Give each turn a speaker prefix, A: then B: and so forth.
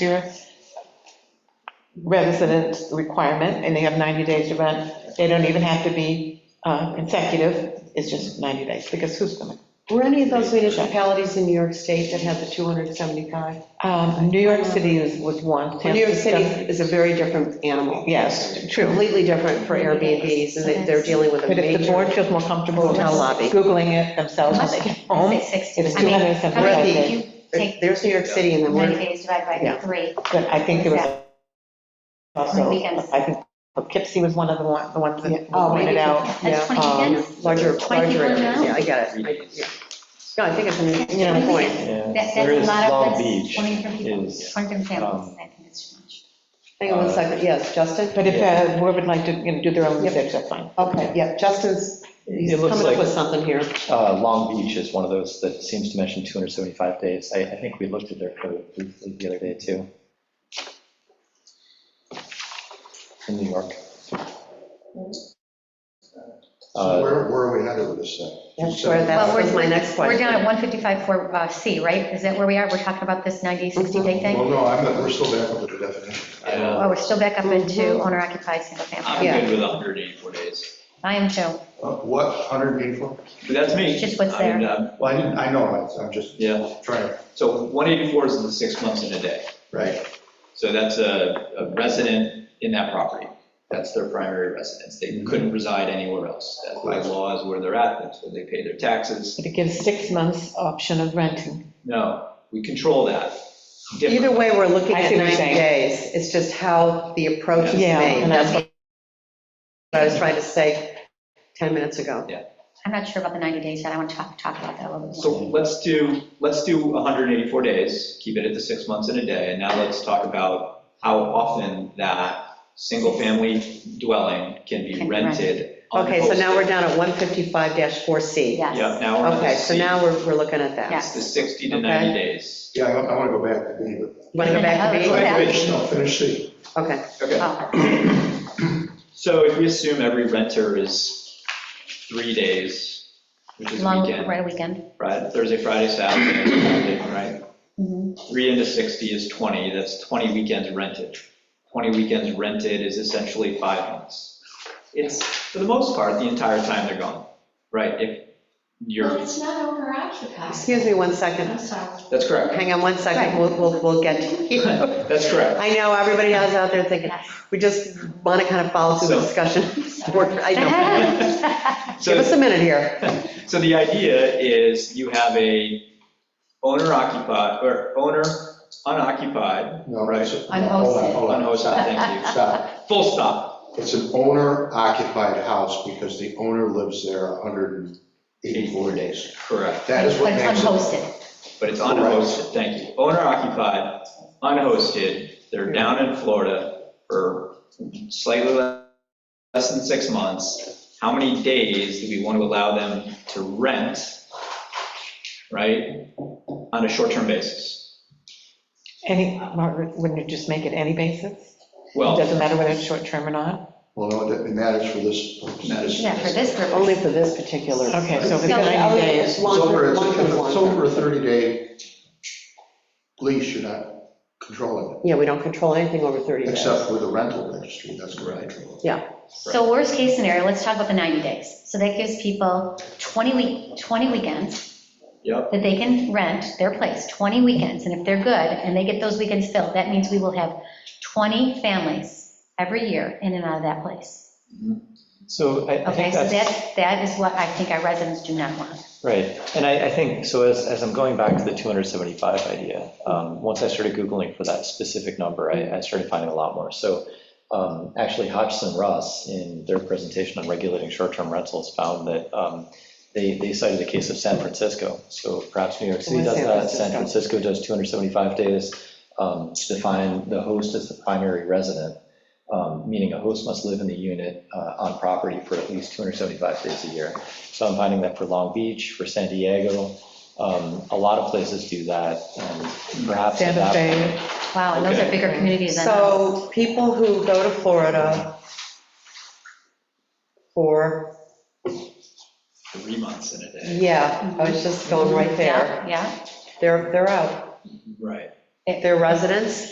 A: zero residence requirement, and they have 90 days to rent. They don't even have to be uh, consecutive, it's just 90 days, because who's going
B: Were any of those municipalities in New York State that had the 275?
A: to? Um, New York City is- was one.
B: Well, New York City is a very different animal.
A: Yes, true.
B: Completely different for Airbnbs, and they- they're dealing with a
A: But if the board
B: major.
A: feels more comfortable
B: Hotel lobby.
A: Googling it themselves when they get home,
C: Say 60.
A: It's
C: I mean,
A: 275
C: how many-
A: days.
C: you Take
B: There's New York City, and then
C: 90
B: we're,
C: days divided by
B: Yeah.
C: three.
A: but I think there was also,
C: Weekends.
A: I think Poughkeepsie was one of the one- the ones that
B: Oh,
A: pointed
B: maybe.
A: out.
C: That's 20
A: um,
C: weekends?
B: larger,
C: Twenty
B: larger
C: people
B: areas,
C: now?
B: yeah, I get it. I- yeah. No, I think it's a, you know,
C: Twenty
B: point.
C: weekends.
D: Yeah,
C: That- That's
D: there
C: a
D: is
C: lot
D: Long
C: of,
D: Beach
C: that's 20 different people,
D: is,
C: 20 different families.
D: um,
C: I think it's too much.
B: Hang on one second, yes, Justin?
A: But if uh, board would like to, you know, do their own
B: Yep.
A: research, that's fine.
B: Okay, yeah, Justin's, he's
D: It looks
B: coming up
D: like-
B: with something here.
D: uh, Long Beach is one of those that seems to mention 275 days. I, I think we looked at their code briefly the other day, too. In New York.
E: So
D: Uh,
E: where, where are we headed with this thing?
B: That's where, that
C: Well, we're-
B: was my next
C: We're down
B: question.
C: at 155 for uh, C, right? Is that where we are? We're talking about this 90, 60 day
E: Well,
C: thing?
E: no, I'm, not- we're still back up with the definition.
F: Yeah,
C: Oh, we're still back up into
B: Mhm.
C: owner occupied, single family.
F: I'm
B: Yeah.
F: good with 184 days.
C: I am too.
E: Uh, What, 184?
F: That's me.
C: It's just what's
F: I mean,
C: there.
F: um,
E: Well, I didn't, I know, it's- I'm just
F: Yeah,
E: trying, to-
F: so 184 is the six months and a day.
E: right?
F: So that's a a resident in that property. That's their primary residence. They couldn't reside anywhere else. That's by law is where they're at, that's where they pay their taxes.
A: But it gives six months option of renting.
F: No, we control that. Different.
B: Either way, we're looking
A: I
B: at
A: see what you're saying.
B: 90 days. It's just how the approach is
A: Yeah,
B: made.
A: and
B: That's
A: that's
B: what I was trying to say 10 minutes ago.
C: I'm not sure about the 90 days yet. I want to talk, talk about that a little bit
F: So
C: more.
F: let's do, let's do 184 days, keep it at the six months and a day, and now let's talk about how often that single-family dwelling can be
C: Can be rented.
F: rented.
B: Okay, so now
F: unhosted.
B: we're down at 155-4C.
F: Yeah,
C: Yes.
F: now we're on the
B: Okay, so
F: C.
B: now we're, we're looking at that.
C: Yeah.
F: It's the 60 to
B: Okay.
F: 90 days.
E: Yeah, I want to go back to B, but.
B: You Want to go back to
C: Go
B: B?
C: ahead.
E: Wait, No, finish C.
B: Okay,
F: Okay,
C: Oh,
F: so if we assume every renter is three days, which is a
C: Long,
F: weekend,
C: right, a weekend.
F: right, Thursday, Friday, Saturday, Sunday, right?
C: Mhm.
F: Three into 60 is 20, that's 20 weekends rented. 20 weekends rented is essentially five months. It's, for the most part, the entire time they're gone, right? If
G: But
F: you're,
G: it's not owner occupied.
B: excuse me one second.
G: I'm sorry.
F: that's correct,
B: Hang on one second, we'll, we'll, we'll get to you.
F: that's correct.
B: I know, everybody else out there thinking,
C: Yes.
B: we just want to kind of follow through the discussion. We're- I know.
F: So
B: Give us a minute here.
F: So the idea is you have a owner occupied, or owner unoccupied,
E: No, right. Hold on,
C: Unhosted.
E: hold on.
F: unhosted, thank you.
E: Stop.
F: Full stop,
E: It's an owner occupied house because the owner lives there 184 days.
F: correct,
E: That is what
C: But
E: makes
C: it's
E: it.
C: unhosted.
F: but it's unhosted, thank you. Owner occupied, unhosted, they're down in Florida for slightly le- less than six months. How many days do we want to allow them to rent, right, on a short-term basis?
A: Any, Margaret, wouldn't you just make it any basis? It
F: Well.
A: doesn't matter whether it's short-term or not?
E: Well, no, it matters for this purpose.
C: Yeah, for this
A: Oh,
C: purpose.
B: Only for this particular.
A: Okay, so if Oh, it's
C: No,
A: 90 days,
E: It's over,
B: Long-term,
E: it's
B: long-term,
E: it's
B: long-term.
E: over a 30 day lease, you're not controlling
B: Yeah, we don't control anything over 30
E: it,
B: days.
E: except with the rental registry, that's what I
F: Right.
E: control.
C: So worst case scenario, let's talk about the 90 days. So that gives people 20 week, 20 weekends.
F: Yep.
C: That they can rent their place, 20 weekends. And if they're good and they get those weekends filled, that means we will have 20 families every year in and out of that place.
D: So I I
C: Okay,
D: think
C: so
D: that's.
C: that, that is what I think our residents do not want.
D: Right, and I, I think, so as, as I'm going back to the 275 idea, um, once I started Googling for that specific number, I, I started finding a lot more. So um, actually Hodgson Russ, in their presentation on regulating short-term rentals, found that um, they, they cited the case of San Francisco. So perhaps New York City
B: Where's
D: does
B: San
D: that, San
B: Francisco?
D: Francisco does 275 days um, to define the host as the primary resident, um, meaning a host must live in the unit uh, on property for at least 275 days a year. So I'm finding that for Long Beach, for San Diego, um, a lot of places do that, and perhaps.
A: Santa
D: that-
A: Fe,
C: Wow, and those are
F: Okay.
C: bigger communities than us.
B: So people who go to Florida for,
F: Three months in a day,
B: yeah, I was just going right there,
C: Yeah, yeah.
B: they're, they're out.
F: right.
B: They're residents,